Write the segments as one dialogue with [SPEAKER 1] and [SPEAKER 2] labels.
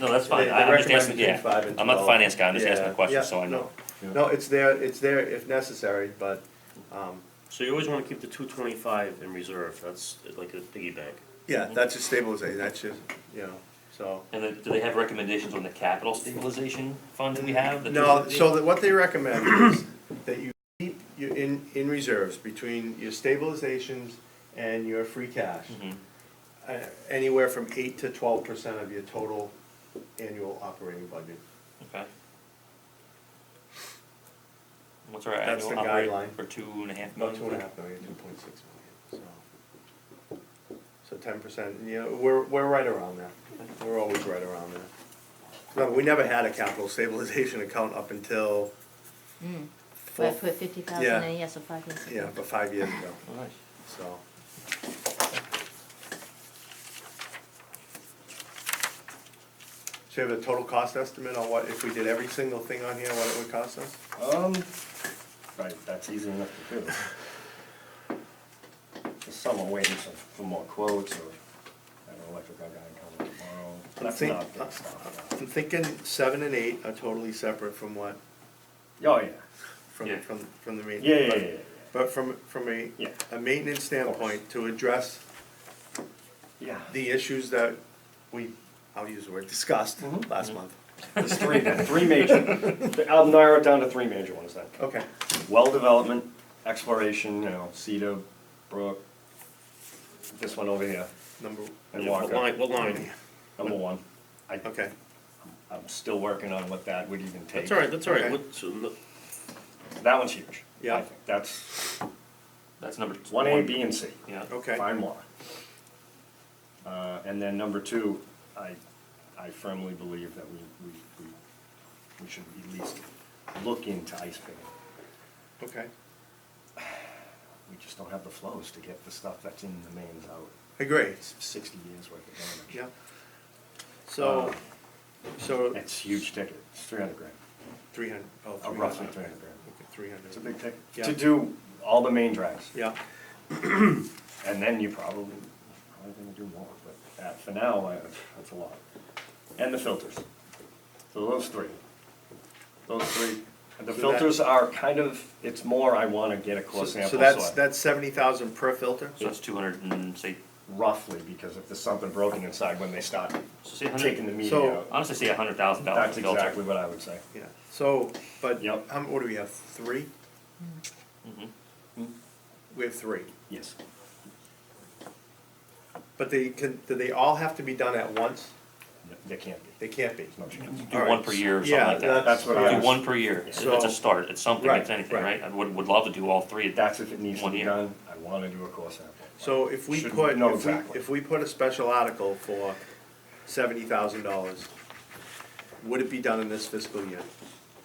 [SPEAKER 1] No, that's fine,
[SPEAKER 2] They-
[SPEAKER 1] I-
[SPEAKER 2] they
[SPEAKER 1] I'm just
[SPEAKER 2] recommend
[SPEAKER 1] asking,
[SPEAKER 2] between
[SPEAKER 1] yeah,
[SPEAKER 2] five and
[SPEAKER 1] I'm not the
[SPEAKER 2] 12.
[SPEAKER 1] finance guy, I'm just asking
[SPEAKER 2] Yeah,
[SPEAKER 1] the question,
[SPEAKER 2] yeah,
[SPEAKER 1] so I know.
[SPEAKER 2] no. No, it's there, it's there if necessary, but, um,
[SPEAKER 3] So you always wanna keep the two twenty-five in reserve, that's like a piggy bank.
[SPEAKER 2] yeah, that's a stabilization, that's just, you know, so.
[SPEAKER 1] And then, do they have recommendations on the capital stabilization fund that we have? the
[SPEAKER 2] No,
[SPEAKER 1] 250?
[SPEAKER 2] so that what they recommend is that you keep your in, in reserves between your stabilizations and your free cash.
[SPEAKER 1] Mhm.
[SPEAKER 2] uh, Anywhere from eight to twelve percent of your total annual operating budget.
[SPEAKER 1] Okay. What's our
[SPEAKER 2] That's
[SPEAKER 1] annual
[SPEAKER 2] the
[SPEAKER 1] operating
[SPEAKER 2] guideline.
[SPEAKER 1] for two and a half
[SPEAKER 2] No,
[SPEAKER 1] million?
[SPEAKER 2] two and a half million, two point six million, so. So ten percent, you know, we're, we're right around there. We're always right around there. No, we never had a capital stabilization account up until,
[SPEAKER 4] Well, I put Mm. fifty
[SPEAKER 2] Yeah.
[SPEAKER 4] thousand in, yes, so five years ago.
[SPEAKER 2] yeah, about five years ago,
[SPEAKER 1] Oh, nice.
[SPEAKER 2] so. So you have a total cost estimate on what, if we did every single thing on here, what it would cost us?
[SPEAKER 3] Um. Right, that's easy enough to do. There's someone waiting for, for more quotes or, I have an electrical guy coming tomorrow. That's
[SPEAKER 2] Think-
[SPEAKER 3] not
[SPEAKER 5] uh,
[SPEAKER 3] big stuff. Oh,
[SPEAKER 2] I'm thinking seven and eight are totally separate from what,
[SPEAKER 3] no. Oh, yeah,
[SPEAKER 2] from,
[SPEAKER 1] Yeah.
[SPEAKER 2] from, from the main.
[SPEAKER 3] yeah, yeah,
[SPEAKER 2] but-
[SPEAKER 3] yeah, yeah,
[SPEAKER 2] But from, from a,
[SPEAKER 3] Yeah.
[SPEAKER 2] a maintenance standpoint, to address
[SPEAKER 3] yeah.
[SPEAKER 2] the issues that we, I'll use the word, discussed
[SPEAKER 3] Mhm.
[SPEAKER 2] last month.
[SPEAKER 3] There's three, three major, I'll narrow it down to three major ones then.
[SPEAKER 2] Okay,
[SPEAKER 3] Well development, exploration, you know, Cedar, Brook, this one over here,
[SPEAKER 2] number,
[SPEAKER 3] and
[SPEAKER 5] Yeah, what line,
[SPEAKER 3] Walker,
[SPEAKER 5] what line?
[SPEAKER 3] number one. I,
[SPEAKER 2] okay,
[SPEAKER 3] I'm still working on what that would even take.
[SPEAKER 5] That's all right, that's all right.
[SPEAKER 2] Okay.
[SPEAKER 5] What- so no-
[SPEAKER 3] That one's huge. I
[SPEAKER 2] Yeah.
[SPEAKER 3] think. That's
[SPEAKER 1] That's number. t-
[SPEAKER 3] one A, B, and C.
[SPEAKER 1] Yeah,
[SPEAKER 2] okay.
[SPEAKER 3] Fine water. Uh, and then number two, I, I firmly believe that we, we, we, we should at least look into ice picking.
[SPEAKER 2] Okay.
[SPEAKER 3] We just don't have the flows to get the stuff that's in the mains out,
[SPEAKER 2] Agree,
[SPEAKER 3] It's sixty years worth of damage.
[SPEAKER 2] yeah. So,
[SPEAKER 3] Um,
[SPEAKER 2] so
[SPEAKER 3] It's huge ticket, it's three hundred grand,
[SPEAKER 2] three hundred, oh,
[SPEAKER 3] Uh,
[SPEAKER 2] three
[SPEAKER 3] roughly
[SPEAKER 2] hundred.
[SPEAKER 3] three hundred grand.
[SPEAKER 2] Okay, three hundred.
[SPEAKER 3] It's a big ticket,
[SPEAKER 2] Yeah.
[SPEAKER 3] to do all the main drags.
[SPEAKER 2] Yeah,
[SPEAKER 3] And then you probably, probably gonna do more, but that, for now, I- that's a lot. And the filters. So those three. Those three. And the
[SPEAKER 2] So that-
[SPEAKER 3] filters are kind of, it's more I wanna get a
[SPEAKER 2] so,
[SPEAKER 3] core sample,
[SPEAKER 2] so
[SPEAKER 3] so
[SPEAKER 2] that's,
[SPEAKER 3] I-
[SPEAKER 2] that's seventy thousand per filter?
[SPEAKER 1] so that's two hundred and say,
[SPEAKER 3] roughly, because if there's something broken inside when they start
[SPEAKER 1] so say a
[SPEAKER 3] taking
[SPEAKER 1] hundred,
[SPEAKER 3] the media
[SPEAKER 2] So-
[SPEAKER 3] out,
[SPEAKER 1] honestly say a hundred thousand dollars
[SPEAKER 3] that's
[SPEAKER 1] to filter.
[SPEAKER 3] exactly what I would say.
[SPEAKER 2] Yeah, so, but,
[SPEAKER 3] Yep.
[SPEAKER 2] how, m- what do we have, three?
[SPEAKER 1] Mhm.
[SPEAKER 3] Mm-hmm.
[SPEAKER 2] We have three,
[SPEAKER 3] Yes.
[SPEAKER 2] but they can, do they all have to be done at once?
[SPEAKER 3] No, They can't be,
[SPEAKER 2] They can't be.
[SPEAKER 3] there's no chance.
[SPEAKER 2] Mm-hmm.
[SPEAKER 1] Do one per year or something
[SPEAKER 2] Yeah,
[SPEAKER 1] like that.
[SPEAKER 3] That's what I
[SPEAKER 1] Do
[SPEAKER 3] was-
[SPEAKER 1] one per year, it's
[SPEAKER 2] So-
[SPEAKER 1] a start, it's something,
[SPEAKER 2] Right,
[SPEAKER 1] it's anything,
[SPEAKER 2] right.
[SPEAKER 1] right? I would, would love to do all three.
[SPEAKER 3] That's if it needs to
[SPEAKER 1] One
[SPEAKER 3] be
[SPEAKER 1] year.
[SPEAKER 3] done, I wanna do a core sample.
[SPEAKER 2] So if we
[SPEAKER 3] Should
[SPEAKER 2] put,
[SPEAKER 3] know
[SPEAKER 2] if we,
[SPEAKER 3] exactly.
[SPEAKER 2] if we put a special article for seventy thousand dollars, would it be done in this fiscal year?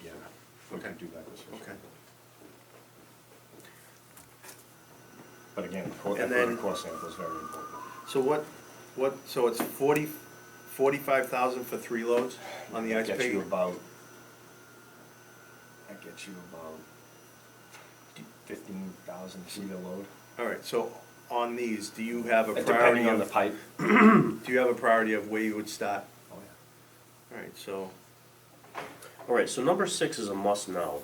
[SPEAKER 3] Yeah, we
[SPEAKER 2] Okay.
[SPEAKER 3] could do that this year.
[SPEAKER 2] Okay.
[SPEAKER 3] But again, the core,
[SPEAKER 2] And
[SPEAKER 3] the
[SPEAKER 2] then-
[SPEAKER 3] core sample is very important.
[SPEAKER 2] So what, what, so it's forty, forty-five thousand for three loads on the ice
[SPEAKER 3] That gets you
[SPEAKER 2] picking?
[SPEAKER 3] about, that gets you about fifteen thousand feet of load.
[SPEAKER 2] Alright, so on these, do you have a
[SPEAKER 3] And
[SPEAKER 2] priority
[SPEAKER 3] Depending on the
[SPEAKER 2] of,
[SPEAKER 3] pipe.
[SPEAKER 2] do you have a priority of where you would start?
[SPEAKER 3] Oh, yeah.
[SPEAKER 2] Alright, so,
[SPEAKER 5] All right, so number six is a must now.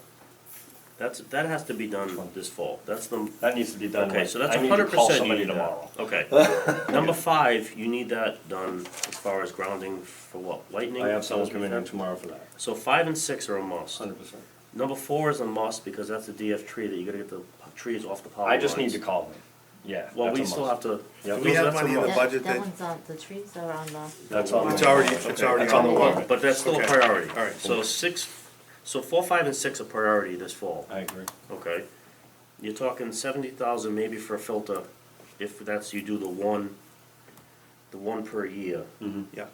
[SPEAKER 5] That's, that has to be done this fall, that's the,
[SPEAKER 3] That needs to be done.
[SPEAKER 5] okay,
[SPEAKER 3] like-
[SPEAKER 5] so that's
[SPEAKER 3] I need to
[SPEAKER 5] hundred
[SPEAKER 3] call
[SPEAKER 5] percent you
[SPEAKER 3] somebody
[SPEAKER 5] need that.
[SPEAKER 3] tomorrow.
[SPEAKER 5] Okay. Number five, you need that done as far as grounding for what, lightning?
[SPEAKER 3] I have someone coming in tomorrow for that,
[SPEAKER 5] So five and six are a must.
[SPEAKER 3] hundred percent.
[SPEAKER 5] Number four is a must because that's the DF tree that you gotta get the p- trees off the power
[SPEAKER 3] I just need to
[SPEAKER 5] lines.
[SPEAKER 3] call them, yeah.
[SPEAKER 5] Well,
[SPEAKER 3] that's
[SPEAKER 5] we
[SPEAKER 3] a
[SPEAKER 5] still have
[SPEAKER 3] must.
[SPEAKER 5] to.
[SPEAKER 3] Yep.
[SPEAKER 2] Do we have
[SPEAKER 5] that's a
[SPEAKER 2] money in the
[SPEAKER 5] must.
[SPEAKER 4] That-
[SPEAKER 2] budget
[SPEAKER 4] That
[SPEAKER 2] that-
[SPEAKER 4] one's on, the trees are on the.
[SPEAKER 3] That's on. the
[SPEAKER 2] It's already-
[SPEAKER 3] warrant.
[SPEAKER 2] it's already
[SPEAKER 3] That's
[SPEAKER 2] on
[SPEAKER 3] on the
[SPEAKER 2] the
[SPEAKER 3] warrant.
[SPEAKER 5] But that's still a
[SPEAKER 2] Okay.
[SPEAKER 5] priority.
[SPEAKER 2] All right.
[SPEAKER 5] So six, so four, five, and six are priority this fall,
[SPEAKER 3] I agree.
[SPEAKER 5] okay? You're talking seventy thousand maybe for a filter, if that's, you do the one, the one per year.
[SPEAKER 2] yeah,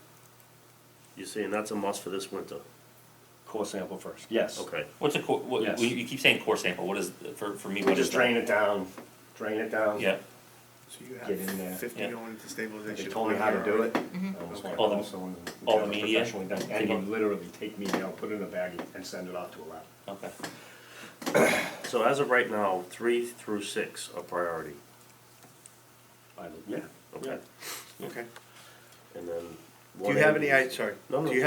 [SPEAKER 5] You're saying that's a must for this winter,
[SPEAKER 3] Core sample first, yes.
[SPEAKER 5] okay?
[SPEAKER 1] What's a core, what,
[SPEAKER 3] Yes.
[SPEAKER 1] you you keep saying core sample, what is, for, for me, what
[SPEAKER 3] We
[SPEAKER 1] is
[SPEAKER 3] just
[SPEAKER 1] that?
[SPEAKER 3] drain it down, drain it down.
[SPEAKER 1] Yeah,
[SPEAKER 2] so you
[SPEAKER 3] Get in there.
[SPEAKER 2] have fifty
[SPEAKER 1] Yeah.
[SPEAKER 2] going into
[SPEAKER 3] They
[SPEAKER 2] stabilization.
[SPEAKER 3] told me how to do it. I almost
[SPEAKER 2] Okay.
[SPEAKER 3] went
[SPEAKER 1] All the-
[SPEAKER 3] also and
[SPEAKER 1] all
[SPEAKER 3] got
[SPEAKER 1] the
[SPEAKER 3] it
[SPEAKER 1] media?
[SPEAKER 3] professionally done. And you literally take media, put it in a baggie and send it off to a lab.
[SPEAKER 1] okay.
[SPEAKER 5] So as of right now, three through six are priority,
[SPEAKER 3] I- Yeah, yeah.
[SPEAKER 5] okay?
[SPEAKER 2] Okay,
[SPEAKER 5] And then.
[SPEAKER 2] do
[SPEAKER 5] one
[SPEAKER 2] you have
[SPEAKER 5] A
[SPEAKER 2] any,
[SPEAKER 5] is-
[SPEAKER 2] i- sorry,
[SPEAKER 5] No, no.
[SPEAKER 2] do you